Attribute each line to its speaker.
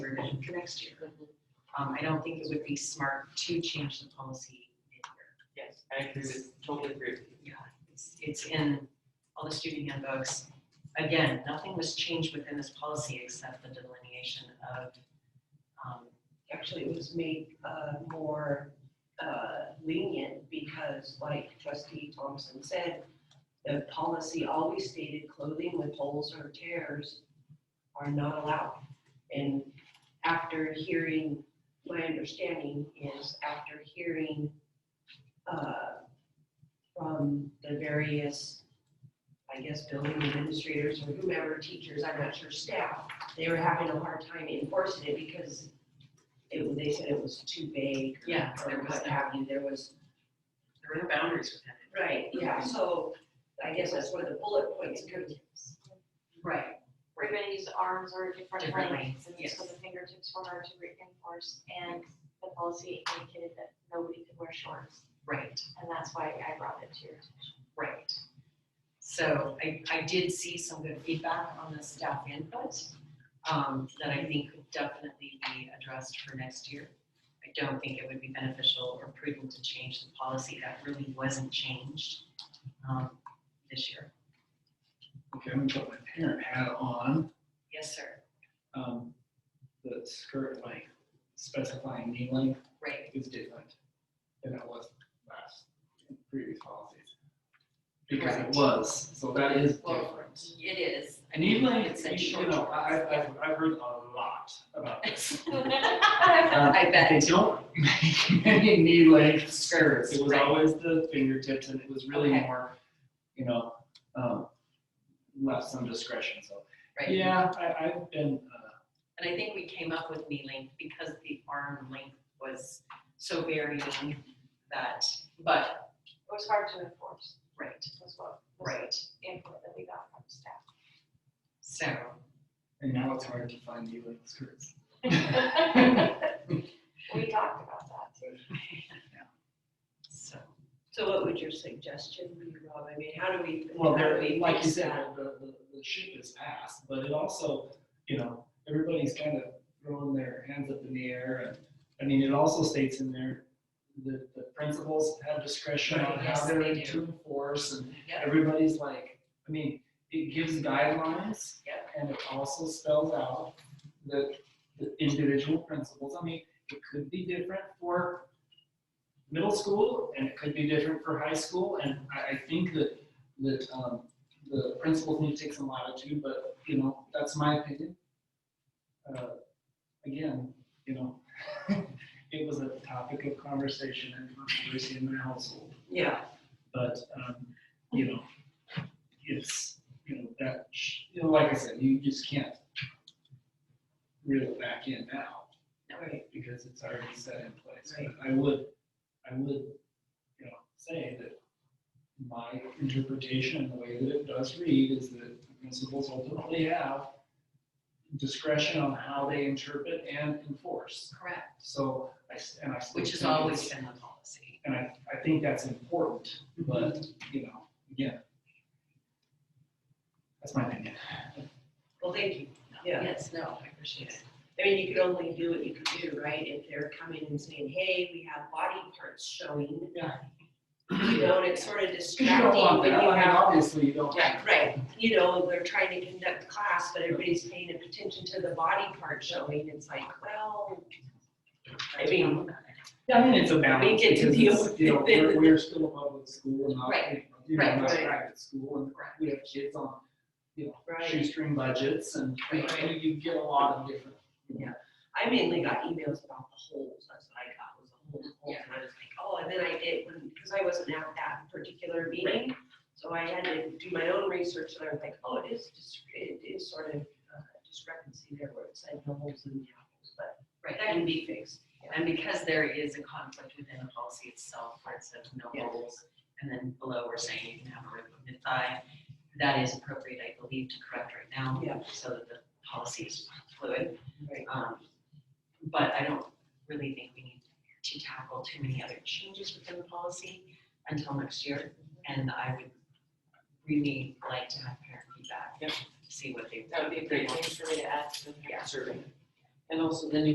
Speaker 1: for next year. Um, I don't think it would be smart to change the policy mid-year.
Speaker 2: Yes, I agree with, totally agree with you.
Speaker 1: Yeah, it's, it's in all the student handbooks. Again, nothing was changed within this policy except the delineation of, um,
Speaker 3: Actually, it was made uh, more uh, lenient because like trustee Thompson said, the policy always stated clothing with holes or tears are not allowed. And after hearing, my understanding is after hearing uh, from the various, I guess, building administrators or whomever, teachers, I'm not sure, staff, they were having a hard time enforcing it because it, they said it was too vague
Speaker 1: yeah,
Speaker 3: or
Speaker 1: there was,
Speaker 3: what
Speaker 1: no-
Speaker 3: have you, there was.
Speaker 1: there were no boundaries within it.
Speaker 3: Right, yeah, so I guess that's where the bullet points come in.
Speaker 1: Right.
Speaker 4: We're gonna use arms or different
Speaker 1: Different
Speaker 4: lengths, and
Speaker 1: yes.
Speaker 4: so the fingertips were hard to reinforce, and the policy indicated that nobody could wear shorts,
Speaker 1: Right,
Speaker 4: and that's why I brought it to your attention.
Speaker 1: right. So I, I did see some good feedback on the staff input, um, that I think could definitely be addressed for next year. I don't think it would be beneficial or prudent to change the policy that really wasn't changed, um, this year.
Speaker 5: Okay, I'm gonna put my parent hat on,
Speaker 1: Yes, sir.
Speaker 5: um, the skirt length, specifying knee length
Speaker 1: Right,
Speaker 5: is different than it was last, in previous policies. Because it
Speaker 1: Correct.
Speaker 5: was, so that is
Speaker 1: Well,
Speaker 5: different.
Speaker 1: it is.
Speaker 5: Knee
Speaker 1: It
Speaker 5: length,
Speaker 1: said
Speaker 5: you
Speaker 1: short.
Speaker 5: know, I, I- I've, I've heard a lot about this. Uh,
Speaker 1: I bet.
Speaker 5: They don't make many knee length skirts, it was
Speaker 1: Right.
Speaker 5: always the fingertips, and it was really
Speaker 1: Okay.
Speaker 5: more, you know, um, left some discretion, so.
Speaker 1: Right.
Speaker 5: Yeah, I, I've been, uh,
Speaker 1: And I think we came up with knee length because the arm length was so varying that, but,
Speaker 4: It was hard to enforce,
Speaker 1: right,
Speaker 4: was what, was
Speaker 1: right.
Speaker 4: the input that we got from
Speaker 1: So,
Speaker 5: And now it's hard to find you in skirts.
Speaker 4: staff. We talked about that too.
Speaker 1: so,
Speaker 3: So what would your suggestion be, Rob? I mean, how do we?
Speaker 5: Well,
Speaker 3: how do
Speaker 5: there,
Speaker 3: we
Speaker 5: like you
Speaker 3: fix
Speaker 5: said,
Speaker 3: that?
Speaker 5: the, the, the ship is passed, but it also, you know, everybody's kind of throwing their hands up in the air. And I mean, it also states in there that the principals have discretion on how
Speaker 1: Yes,
Speaker 5: they're
Speaker 1: they
Speaker 5: to enforce and
Speaker 1: Yep.
Speaker 5: everybody's like, I mean, it gives guidelines.
Speaker 1: Yep.
Speaker 5: And it also spells out the, the individual principles. I mean, it could be different for middle school and it could be different for high school. And I, I think that, that, um, the principals need to take some latitude, but, you know, that's my opinion. Uh, Again, you know, it was a topic of conversation and controversy in my household,
Speaker 3: Yeah,
Speaker 5: but, um, you know, it's, you know, that, sh- you know, like I said, you just can't reel it back in now
Speaker 3: right,
Speaker 5: because it's already set in place. But I would, I would, you know, say that my interpretation, and the way that it does read, is that the principals ultimately have discretion on how they interpret and enforce.
Speaker 1: correct,
Speaker 5: So I, s- and I. still
Speaker 1: which has
Speaker 5: think it's-
Speaker 1: always been the policy.
Speaker 5: And I, I think that's important, but, you know, again. That's my opinion.
Speaker 3: well, thank you, yeah.
Speaker 1: Yes, no, I appreciate it.
Speaker 3: I mean, you could only do what you could do, right? If they're coming and saying, hey, we have body parts showing.
Speaker 5: Yeah.
Speaker 3: You know, and it's sort of
Speaker 5: You don't
Speaker 3: distracting
Speaker 5: want
Speaker 3: when
Speaker 5: that,
Speaker 3: you
Speaker 5: I mean,
Speaker 3: have
Speaker 5: obviously you don't.
Speaker 3: Right, right, you know, they're trying to conduct class, but everybody's paying attention to the body part showing, it's like, well. I mean,
Speaker 5: Yeah, I mean, it's a balance.
Speaker 3: get to
Speaker 5: because
Speaker 3: deal
Speaker 5: it's,
Speaker 3: with
Speaker 5: You know,
Speaker 3: it.
Speaker 5: we're, we're still a public school and not,
Speaker 1: Right,
Speaker 5: you know,
Speaker 1: right,
Speaker 5: not
Speaker 3: right.
Speaker 5: private school and we have kids on, you know,
Speaker 3: right,
Speaker 5: shoestring budgets and, you know,
Speaker 3: Right.
Speaker 5: you get a lot of different.
Speaker 3: I mainly got emails about the holes, that's what I got, was the holes, holes, and I was like, oh, and then I did, because I wasn't at that particular meeting. So I had to do my own research, and I was like, oh, it is, dis- it is sort of uh, discrepancy there where it said no holes in the apples, but
Speaker 1: Right,
Speaker 3: that can be fixed.
Speaker 1: and because there is a conflict within the policy itself, where it says no
Speaker 3: Yeah.
Speaker 1: holes, and then below we're saying you can have a rib of mid-thigh, that is appropriate, I believe, to correct right now.
Speaker 3: Yeah.
Speaker 1: So that the policy is fluid.
Speaker 3: Right.
Speaker 1: Um, But I don't really think we need to tackle too many other changes within the policy until next year.
Speaker 3: Mm-hmm.
Speaker 1: And I would really like to have parent feedback, see what they.
Speaker 2: That would be a
Speaker 1: they
Speaker 2: great
Speaker 1: want.
Speaker 2: thing for me to add to the
Speaker 1: Yeah.
Speaker 2: survey.
Speaker 5: And also then you